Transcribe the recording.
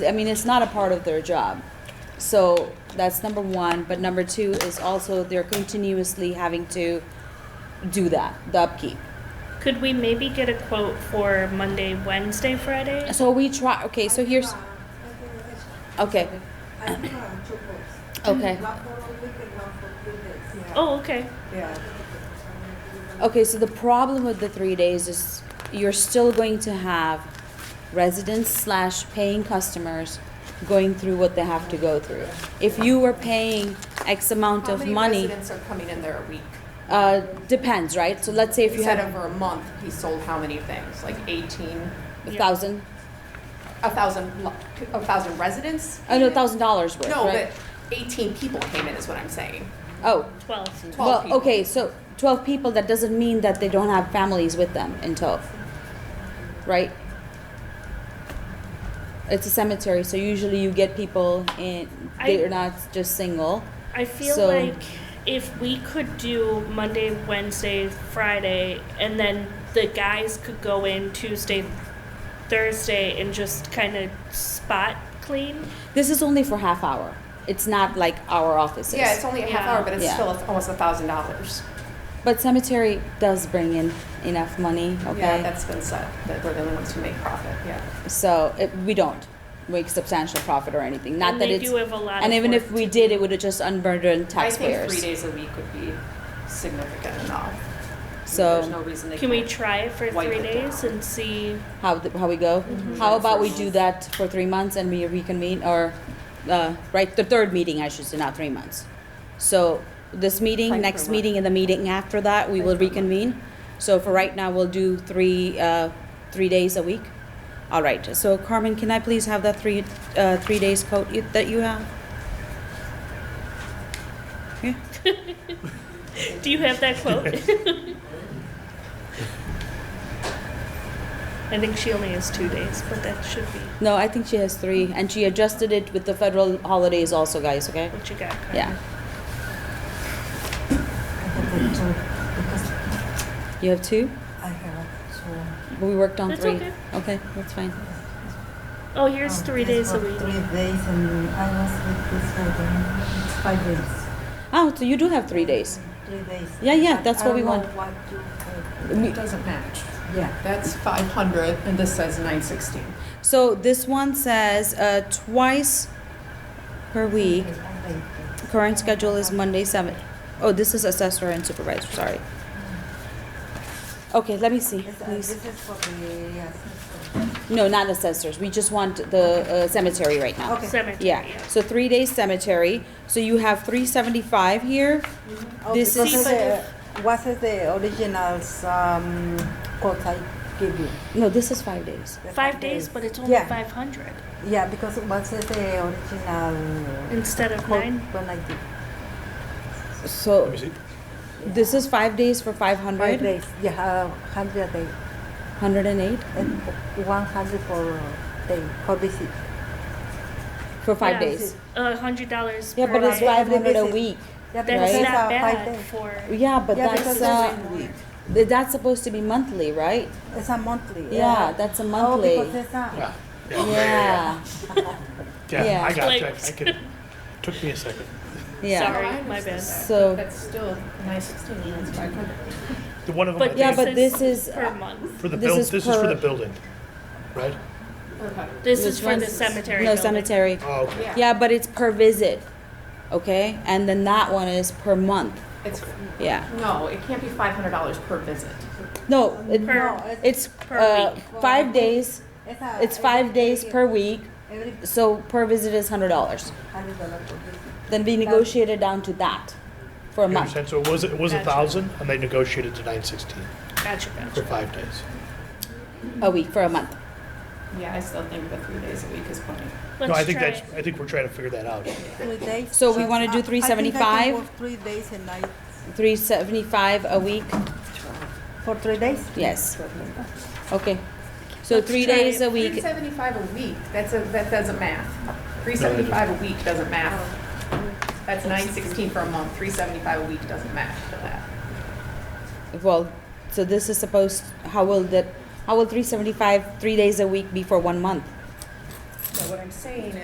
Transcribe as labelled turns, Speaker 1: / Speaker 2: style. Speaker 1: I mean, it's not a part of their job. So that's number one. But number two is also they're continuously having to do that, the upkeep.
Speaker 2: Could we maybe get a quote for Monday, Wednesday, Friday?
Speaker 1: So we try, okay, so here's, okay,
Speaker 3: I think I'm two books.
Speaker 1: okay.
Speaker 3: One for a week and one for three days.
Speaker 2: Oh, okay.
Speaker 3: Yeah.
Speaker 1: Okay, so the problem with the three days is you're still going to have residents slash paying customers going through what they have to go through. If you were paying X amount
Speaker 4: How
Speaker 1: of
Speaker 4: many
Speaker 1: money,
Speaker 4: residents are coming in there a week?
Speaker 1: uh, depends, right? So let's say if
Speaker 4: He
Speaker 1: you
Speaker 4: said
Speaker 1: had
Speaker 4: over a month, he sold how many things? Like 18,
Speaker 1: a thousand,
Speaker 4: a thousand, lo- a thousand residents?
Speaker 1: oh no, thousand dollars worth,
Speaker 4: No,
Speaker 1: right?
Speaker 4: but 18 people came in is what I'm saying.
Speaker 1: Oh,
Speaker 2: 12.
Speaker 4: 12
Speaker 1: well,
Speaker 4: people.
Speaker 1: okay, so twelve people, that doesn't mean that they don't have families with them in tow, right? It's a cemetery, so usually you get people in,
Speaker 2: I-
Speaker 1: they're not just single.
Speaker 2: I feel
Speaker 1: So-
Speaker 2: like if we could do Monday, Wednesday, Friday, and then the guys could go in Tuesday, Thursday, and just kind of spot clean.
Speaker 1: This is only for half hour. It's not like our offices.
Speaker 4: Yeah, it's only a half
Speaker 2: Yeah.
Speaker 4: hour, but it's
Speaker 1: Yeah.
Speaker 4: still a- almost a thousand dollars.
Speaker 1: but cemetery does bring in enough money. Okay,
Speaker 4: Yeah, that's been said, that we're the only ones who make profit, yeah.
Speaker 1: so it, we don't make substantial profit or anything. Not
Speaker 2: and
Speaker 1: that
Speaker 2: they
Speaker 1: it's.
Speaker 2: do have a lot
Speaker 1: and
Speaker 2: of
Speaker 1: even
Speaker 2: work
Speaker 1: if we
Speaker 2: to
Speaker 1: did,
Speaker 2: do.
Speaker 1: it would have just unburdened
Speaker 4: I think
Speaker 1: taxpayers.
Speaker 4: three days a week would be significant enough.
Speaker 1: So-
Speaker 4: There's no reason they
Speaker 2: Can we
Speaker 4: can't.
Speaker 2: try it for
Speaker 4: Wipe
Speaker 2: three
Speaker 4: it down.
Speaker 2: days and see?
Speaker 1: How th- how we go? How about we do that for three months and we reconvene, or uh, right the third meeting I should say, not three months. So this meeting,
Speaker 4: Like
Speaker 1: next
Speaker 4: for what?
Speaker 1: meeting, and the meeting after that, we will reconvene. So for right now, we'll do three uh, three days a week. All right. So Carmen, can I please have that three uh, three days coat you, that you have? Yeah.
Speaker 2: Do you have that quote? I think she only has two days, but that should be
Speaker 1: No, I think she has three, and she adjusted it with the federal holidays also, guys. Okay.
Speaker 2: what you got. Carmen.
Speaker 1: Yeah. You have two?
Speaker 3: I have two.
Speaker 1: But we worked on
Speaker 2: That's
Speaker 1: three.
Speaker 2: okay.
Speaker 1: that's fine.
Speaker 2: Oh, here's three days a week.
Speaker 3: Three days and I was with this for the five days.
Speaker 1: Oh, so you do have three days.
Speaker 3: Three days.
Speaker 1: Yeah, yeah, that's
Speaker 3: I
Speaker 1: what we
Speaker 3: don't
Speaker 1: want.
Speaker 3: know what to
Speaker 1: We-
Speaker 4: Doesn't match.
Speaker 3: do. Yeah.
Speaker 4: That's 500 and this says 916.
Speaker 1: So this one says uh, twice per week. Current schedule is Monday seven. Oh, this is assessor and supervisor. Sorry. Okay, let me see,
Speaker 3: This
Speaker 1: please.
Speaker 3: this is for the, yes.
Speaker 1: No, not assessors. We just want the uh, cemetery right now.
Speaker 3: Okay.
Speaker 2: Cemetery.
Speaker 1: Yeah. So three days cemetery. So you have three seventy five here.
Speaker 3: Oh,
Speaker 1: This
Speaker 3: because
Speaker 1: is-
Speaker 3: of the- What is the originals, um, quote I give you?
Speaker 1: No, this is five days.
Speaker 3: The
Speaker 2: Five days, but it's only
Speaker 3: Yeah.
Speaker 2: 500
Speaker 3: Yeah, because what is the original
Speaker 2: instead of
Speaker 3: quote
Speaker 2: nine.
Speaker 3: when I did?
Speaker 1: So
Speaker 5: Let me see.
Speaker 1: this is five days for five
Speaker 3: Five
Speaker 1: hundred.
Speaker 3: days, yeah, uh, hundred day,
Speaker 1: Hundred and eight
Speaker 3: and one hundred for day, for visit.
Speaker 1: for five
Speaker 2: Yeah.
Speaker 1: days.
Speaker 2: A hundred dollars.
Speaker 1: Yeah,
Speaker 2: per
Speaker 1: but it's
Speaker 2: night.
Speaker 1: five
Speaker 3: Every
Speaker 1: hundred a
Speaker 3: visit.
Speaker 1: week.
Speaker 3: Yeah, because
Speaker 2: That's
Speaker 1: Right.
Speaker 3: these
Speaker 2: not
Speaker 3: are
Speaker 2: bad
Speaker 3: five days.
Speaker 2: for.
Speaker 1: Yeah, but
Speaker 3: Yeah,
Speaker 1: that's
Speaker 3: because
Speaker 1: uh, th- that's supposed to be monthly, right?
Speaker 3: It's a monthly.
Speaker 1: Yeah, that's a monthly.
Speaker 3: Oh, because it's a,
Speaker 5: Yeah,
Speaker 1: Yeah, Yeah.
Speaker 5: yeah, I got
Speaker 2: Like-
Speaker 5: that. I could, took me a second.
Speaker 1: yeah.
Speaker 2: Sorry,
Speaker 4: Oh, I
Speaker 2: my
Speaker 4: understand
Speaker 2: bad.
Speaker 4: that.
Speaker 1: So-
Speaker 4: That's still 916 and that's 500.
Speaker 5: The one of them, I
Speaker 2: But
Speaker 1: Yeah,
Speaker 5: think,
Speaker 1: but this is- uh,
Speaker 2: per month.
Speaker 5: for the
Speaker 1: this
Speaker 5: build,
Speaker 1: is
Speaker 5: this is for
Speaker 1: per-
Speaker 5: the building, right?
Speaker 4: Okay.
Speaker 2: This is
Speaker 1: Which
Speaker 2: for the
Speaker 1: one's-
Speaker 2: cemetery.
Speaker 1: No
Speaker 2: building.
Speaker 1: cemetery.
Speaker 5: Oh, okay.
Speaker 1: Yeah, but it's per visit, okay? And then that one is per month.
Speaker 4: It's,
Speaker 1: Yeah.
Speaker 4: no, it can't be $500 per visit.
Speaker 1: No, it,
Speaker 2: Per-
Speaker 3: no, it's,
Speaker 1: it's
Speaker 2: per
Speaker 1: uh,
Speaker 2: week.
Speaker 1: five days.
Speaker 3: it's a.
Speaker 1: It's five
Speaker 3: every-
Speaker 1: days per week.
Speaker 3: Every
Speaker 1: So per visit is hundred dollars.
Speaker 3: hundred dollar for visit.
Speaker 1: Then we negotiated down to that for a
Speaker 5: You
Speaker 1: month.
Speaker 5: understand? So it was, it was a
Speaker 2: Gotcha.
Speaker 5: thousand and they negotiated to nine sixteen
Speaker 2: Gotcha,
Speaker 5: for
Speaker 2: gotcha.
Speaker 5: five days.
Speaker 1: A week for a month.
Speaker 4: Yeah, I still think the three days a week is plenty.
Speaker 5: No, I
Speaker 2: Let's
Speaker 5: think
Speaker 2: try
Speaker 5: that's,
Speaker 2: it.
Speaker 5: I think we're trying to figure that out.
Speaker 3: Three days. uh,
Speaker 1: So we wanna do
Speaker 3: I- I think I can
Speaker 1: 375?
Speaker 3: work Three days and night.
Speaker 1: Three seventy-five a week.
Speaker 3: For three days?
Speaker 1: Yes. Okay. So
Speaker 2: Let's
Speaker 1: three
Speaker 2: try
Speaker 1: days
Speaker 2: it.
Speaker 1: a week.
Speaker 4: 375 a week, that's a, that doesn't math. 375 a week doesn't math.
Speaker 1: Oh.
Speaker 4: That's 916 for a month, 375 a week doesn't math for that.
Speaker 1: Well, so this is supposed, how will that, how will three seventy-five, three days a week be for one month?
Speaker 4: So what I'm saying